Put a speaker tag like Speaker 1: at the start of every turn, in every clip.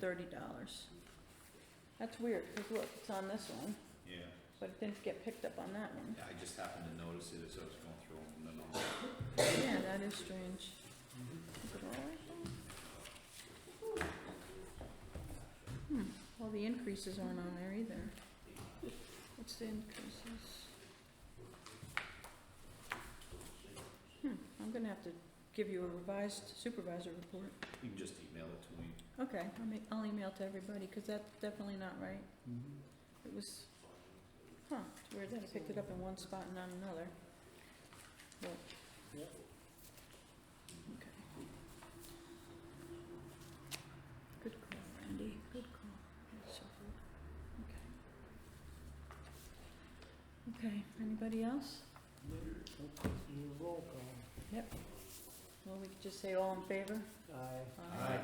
Speaker 1: thirty dollars. That's weird, because look, it's on this one,
Speaker 2: Yeah,
Speaker 1: but it didn't get picked up on that one.
Speaker 2: yeah, I just happened to notice it as I was going through them, and then I'll-
Speaker 1: Yeah, that is strange. Is it all right though? Hmm, well, the increases aren't on there either. What's the increases? Hmm, I'm gonna have to give you a revised supervisor report.
Speaker 2: you can just email it to me.
Speaker 1: Okay, I'll make, I'll email to everybody, cause that's definitely not right. It was, huh, it's weird that I picked it up in one spot and not another. But. Okay. Good call, Randy, good call. That's so good. Okay. Okay, anybody else?
Speaker 3: Roll call.
Speaker 1: Well, we could just say all in favor?
Speaker 3: Aye.
Speaker 2: Aye.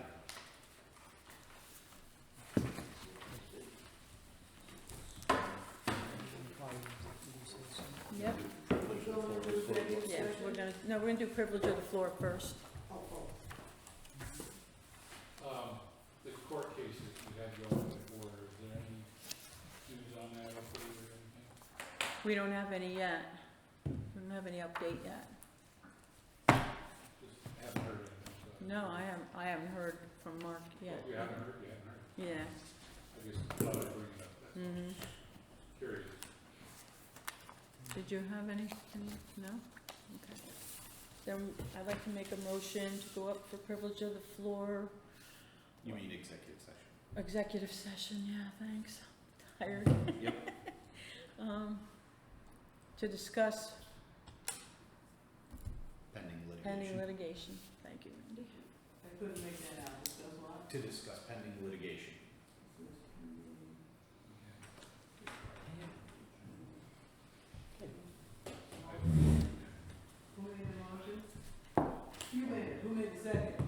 Speaker 1: Yep. Yeah, we're gonna, no, we're gonna do privilege of the floor first.
Speaker 4: Um, the court cases you had going before, is there any news on that or further or anything?
Speaker 1: We don't have any yet. We don't have any update yet.
Speaker 4: Just haven't heard anything, so.
Speaker 1: No, I haven't, I haven't heard from Mark yet.
Speaker 4: You Oh, haven't heard, you haven't heard.
Speaker 1: Yeah,
Speaker 4: I just thought I'd bring it up, that's
Speaker 1: mhm.
Speaker 4: curious.
Speaker 1: Did you have any, any- no? Okay. Then I'd like to make a motion to go up for privilege of the floor,
Speaker 2: You mean executive session?
Speaker 1: executive session, yeah, thanks. Tired.
Speaker 2: Yep.
Speaker 1: Um, to discuss
Speaker 2: Pending litigation.
Speaker 1: pending litigation. Thank you, Randy.
Speaker 3: I couldn't make that out, it says what?
Speaker 2: To discuss pending litigation.
Speaker 3: Who made the motion? You made it, who made the second?